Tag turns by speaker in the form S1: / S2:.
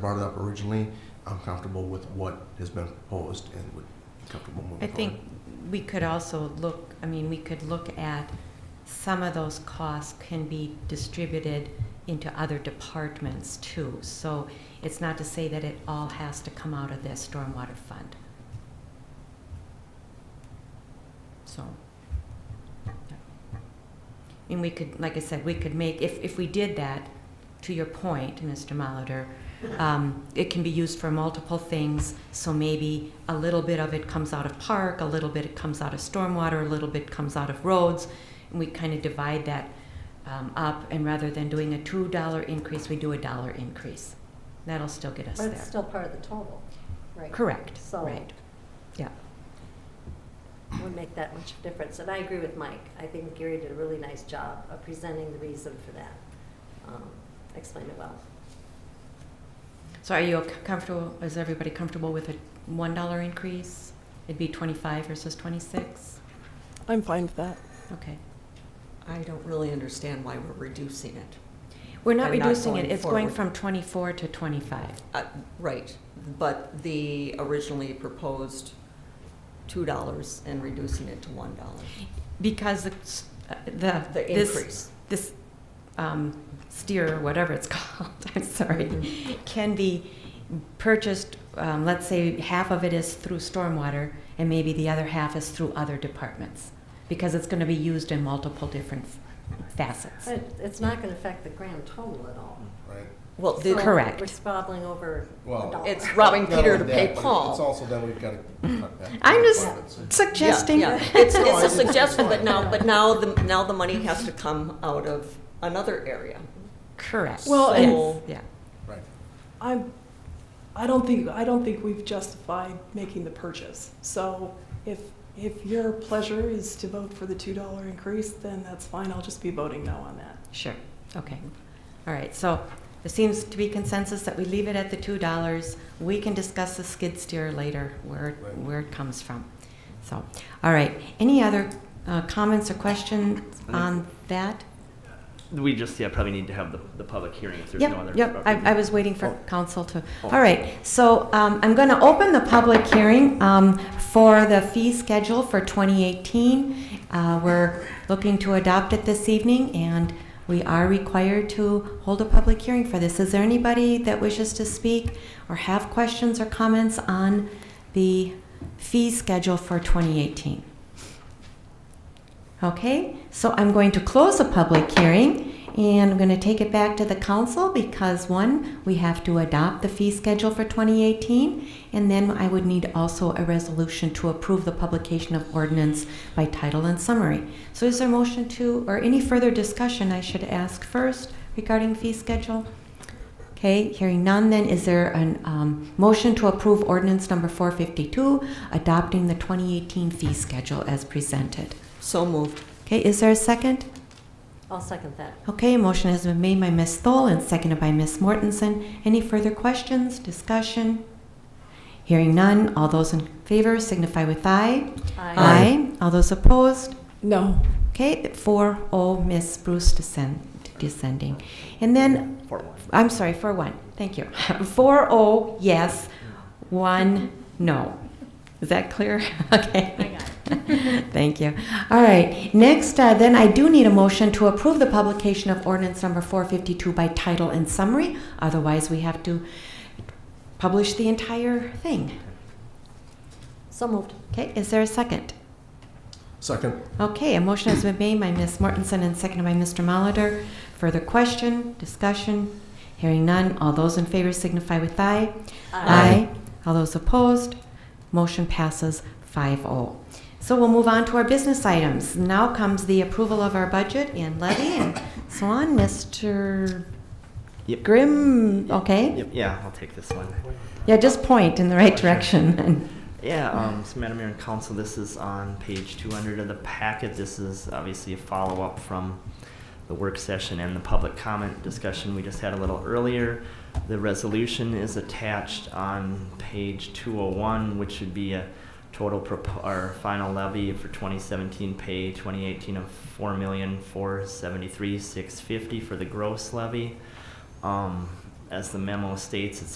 S1: brought it up originally, I'm comfortable with what has been proposed and would be comfortable moving
S2: I
S1: forward.
S2: think we could also look, I mean, we could look at, some of those costs can be distributed into other departments too. So it's not to say that it all has to come out of this stormwater fund. So. yeah. And we could, like I said, we could make, if, if we did that, to your point, Mr. Molitor, um, it can be used for multiple things, so maybe a little bit of it comes out of park, a little bit it comes out of stormwater, a little bit comes out of roads, and we kind of divide that um, up, and rather than doing a two dollar increase, we do a dollar increase. That'll still get us
S3: But it's
S2: there.
S3: still part of the total, right?
S2: Correct,
S3: So-
S2: right. Yeah,
S3: Would make that much difference, and I agree with Mike. I think Gary did a really nice job of presenting the reason for that. Um, Explained it well.
S2: so are you c- comfortable, is everybody comfortable with a one dollar increase? It'd be twenty-five versus twenty-six?
S4: I'm fine with that.
S2: Okay.
S5: I don't really understand why we're reducing it.
S2: We're not
S5: And not
S2: reducing it,
S5: going
S2: it's going
S5: forward.
S2: from twenty-four to twenty-five.
S5: Uh, Right, but the originally proposed two dollars and reducing it to one dollar,
S2: Because the, s- uh, the.
S5: the
S2: this-
S5: increase.
S2: This um, steer, or whatever it's called, I'm sorry,
S5: Mm-hmm.
S2: can be purchased, um, let's say half of it is through stormwater and maybe the other half is through other departments. Because it's gonna be used in multiple different facets.
S3: But it's not going to affect the grand total at all.
S1: Right?
S5: Well, the-
S3: So
S2: Correct.
S3: We're squabbling over a
S1: Well,
S3: dollar.
S5: it's robbing
S1: Not
S5: Peter
S1: only
S5: to pay
S1: that, but It's
S5: Paul.
S1: also that we've got to cut back.
S2: I'm just
S1: Departments.
S5: Yeah,
S2: suggesting.
S5: yeah. It's,
S1: No, I
S5: it's
S1: just-
S5: a suggestion, but now, but now the, now the money has to come out of another area.
S2: Correct.
S4: Well,
S2: Yes,
S5: and-
S2: Yeah.
S1: Right.
S4: I'm, I don't think, I don't think we've justified making the purchase. So if, if your pleasure is to vote for the $2 increase, then that's fine. I'll just be voting no on that.
S2: Sure, okay. All right, so there seems to be consensus that we leave it at the two dollars. We can discuss the skid steer later, where,
S1: Right.
S2: where it comes from. So, all right, any other uh, comments or questions on that?
S6: We just, yeah, probably need to have the, the public hearing if there's no other.
S2: Yep, yep, I, I was waiting for
S1: Oh.
S2: council to,
S1: Oh.
S2: all right. So um, I'm going to open the public hearing um, for the fee schedule for 2018. Uh, We're looking to adopt it this evening, and we are required to hold a public hearing for this. Is there anybody that wishes to speak or have questions or comments on the fee schedule for 2018? Okay, so I'm going to close the public hearing and I'm going to take it back to the council because one, we have to adopt the fee schedule for 2018. And then I would need also a resolution to approve the publication of ordinance by title and summary. So is there a motion to, or any further discussion I should ask first regarding fee schedule? Okay, hearing none, then is there an um, motion to approve ordinance number 452, adopting the 2018 fee schedule as presented?
S5: So moved.
S2: Okay, is there a second?
S3: I'll second that.
S2: Okay, motion has been made by Ms. Thole and seconded by Ms. Mortensen. Any further questions, discussion? Hearing none, all those in favor signify with aye. All those opposed?
S4: No.
S2: Okay, four oh, Ms. Bruce descend, descending. And then,
S6: For one.
S2: I'm sorry, for one, thank you. Four oh, yes, one, no. Is that clear? Okay.
S3: I got
S2: Thank you. All right, next, uh, then I do need a motion to approve the publication of ordinance number 452 by title and summary. Otherwise, we have to publish the entire thing.
S3: So moved.
S2: Okay, is there a second?
S1: Second,
S2: Okay, a motion has been made by Ms. Mortensen and seconded by Mr. Molitor. Further question, discussion? Hearing none, all those in favor signify with aye.
S3: Aye.
S2: All those opposed? Motion passes 5-0. So we'll move on to our business items. Now comes the approval of our budget and levy and so on. Mr.
S6: Yep.
S2: Grimm, okay?
S6: Yep, yeah, I'll take this one.
S2: Yeah, just point in the right direction.
S6: Yeah, um, so Madam Mayor and Council, this is on page two hundred of the packet. This is obviously a follow-up from the work session and the public comment discussion we just had a little earlier. The resolution is attached on page two oh one, which should be a total propo- or final levy for twenty seventeen pay twenty eighteen of four million four seventy-three six fifty for the gross levy. Um, as the memo states, it's